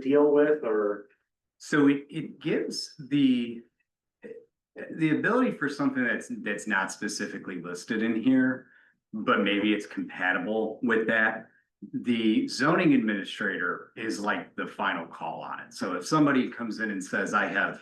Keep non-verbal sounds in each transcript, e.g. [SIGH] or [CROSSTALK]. deal with or? So it, it gives the. The ability for something that's, that's not specifically listed in here, but maybe it's compatible with that. The zoning administrator is like the final call on it. So if somebody comes in and says, I have.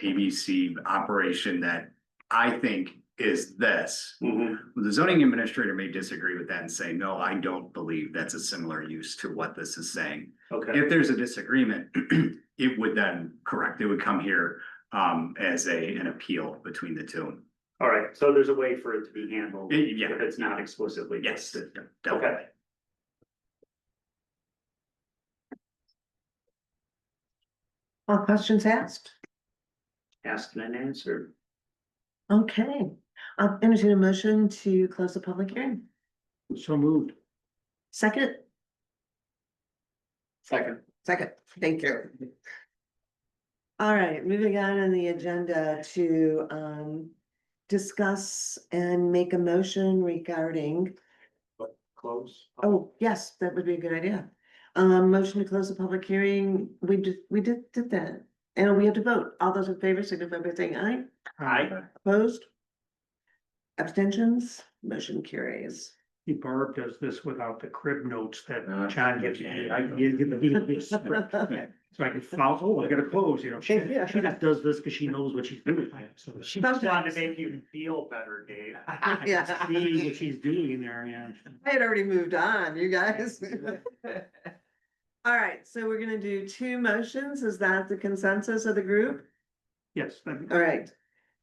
ABC operation that I think is this. Mm-hmm. The zoning administrator may disagree with that and say, no, I don't believe that's a similar use to what this is saying. Okay, If there's a disagreement, [CLEARS THROAT] it would then, correct, it would come here um as a, an appeal between the two. all right, so there's a way for it to be handled Eh, yeah. if it's not explicitly Yes, listed. definitely. All questions asked? Asked and answered. Okay, I'll entertain a motion to close the public hearing. So moved. Second, Second. second, thank you. All right, moving on in the agenda to um discuss and make a motion regarding, Close. oh, yes, that would be a good idea. Um, motion to close the public hearing, we did, we did, did that, and we have to vote. All those in favor signify by saying aye. Aye. Opposed? Abstentions? Motion carries. Barb does this without the crib notes that Uh, John gives me. I yeah. give you. So I can follow, oh, I gotta close, you know, she, [LAUGHS] Yeah. she just does this because she knows what she's doing. So she Just wanted to make you feel better, Dave. [LAUGHS] I Yeah. can See what she's doing in there, yeah. I had already moved on, you guys. All right, so we're gonna do two motions. Is that the consensus of the group? Yes, that- All right.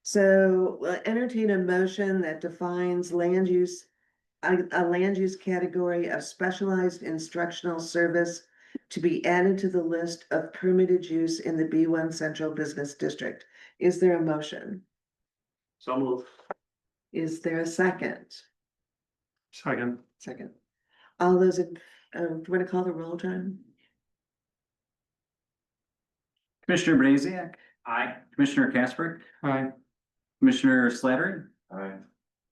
So we'll entertain a motion that defines land use, a, a land use category of specialized instructional service to be added to the list of permitted use in the B one central business district. Is there a motion? So moved. Is there a second? second, Second. All those, in uh, do you want to call the roll, John? Commissioner Braziac, Aye. Commissioner Casper, aye, Commissioner Slattery. Aye.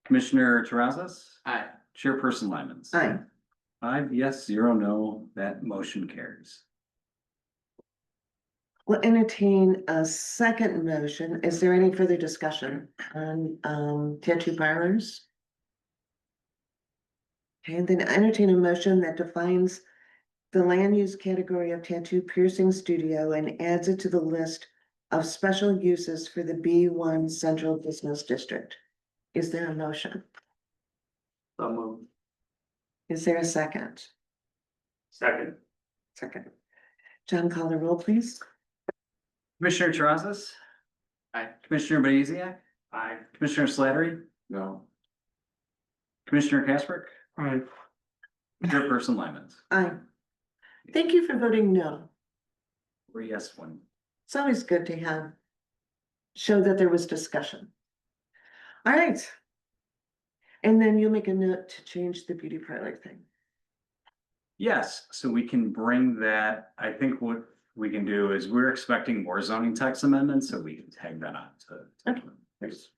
Commissioner Tarazas, Aye. Chairperson Lyman's. Aye. Five yes, zero no, that motion carries. We'll entertain a second motion. Is there any further discussion on um tattoo parlors? And then entertain a motion that defines the land use category of tattoo piercing studio and adds it to the list of special uses for the B one central business district. Is there a motion? So moved. Is there a second? Second. Second. John, call the roll, please. Commissioner Tarazas. Aye. Commissioner Braziac, Aye. Commissioner Slattery. No. Commissioner Casper, aye. Chairperson Lyman's. Aye. Thank you for voting no. Four yes, one It's always good to have, show that there was discussion. All right. And then you'll make a note to change the beauty parlor thing. Yes, so we can bring that, I think what we can do is we're expecting more zoning tax amendments, so we can tag that on to. to- Okay. There's-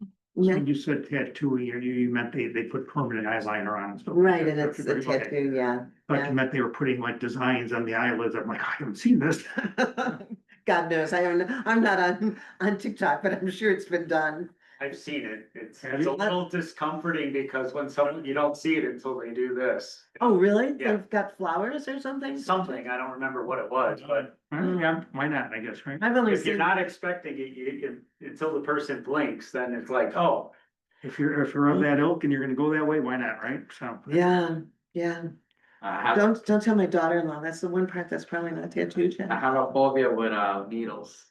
So No, you said tattooing, you, you meant they, they put permanent eyeliner on. and stuff. Right, and it's the Okay. tattoo, yeah. Thought you meant they were putting like designs on the eyelids. I'm like, I haven't seen this. [LAUGHS] [LAUGHS] God knows, I haven't, I'm not on, on TikTok, but I'm sure it's been done. I've seen it. It's, Have it's a you? little discomforting because when someone, you don't see it until they do this. Oh, really? Yeah. They've got flowers or something? Something, I don't remember what it was, but Huh? Mm. Yeah, why not, I guess, right? I've only if you're seen, not expecting it, you, you- until the person blinks, then it's like, oh, If you're, if you're of that ilk and you're gonna go that way, why not, right? So. yeah, yeah. Uh-huh. I Don't, don't tell my daughter-in-law. That's the one part that's probably not tattooed yet. have, I have a phobia with, uh, needles.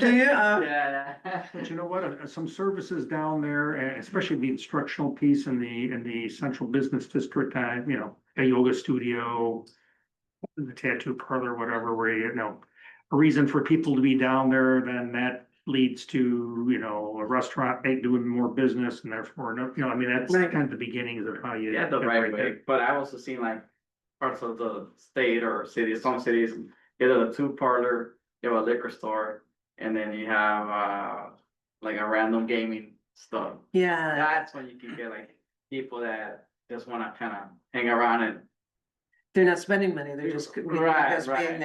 Do you? [LAUGHS] Uh, Yeah. But you know what, uh, some services down there, and especially the instructional piece in the, in the central business district, uh, you know, a yoga studio. The tattoo parlor, whatever, where you know, a reason for people to be down there, then that leads to, you know, a restaurant, they doing more business and therefore, no, you know, I mean, that's Right. kind of the beginnings of how you. Yeah, the right way, but I also seen like parts of the state or city, some cities, either the two parlor, you have a liquor store. And then you have, uh, like a random gaming stuff. Yeah. That's when you can get like people that just wanna kinda hang around and They're not spending money, they're just, Right, just being right. there.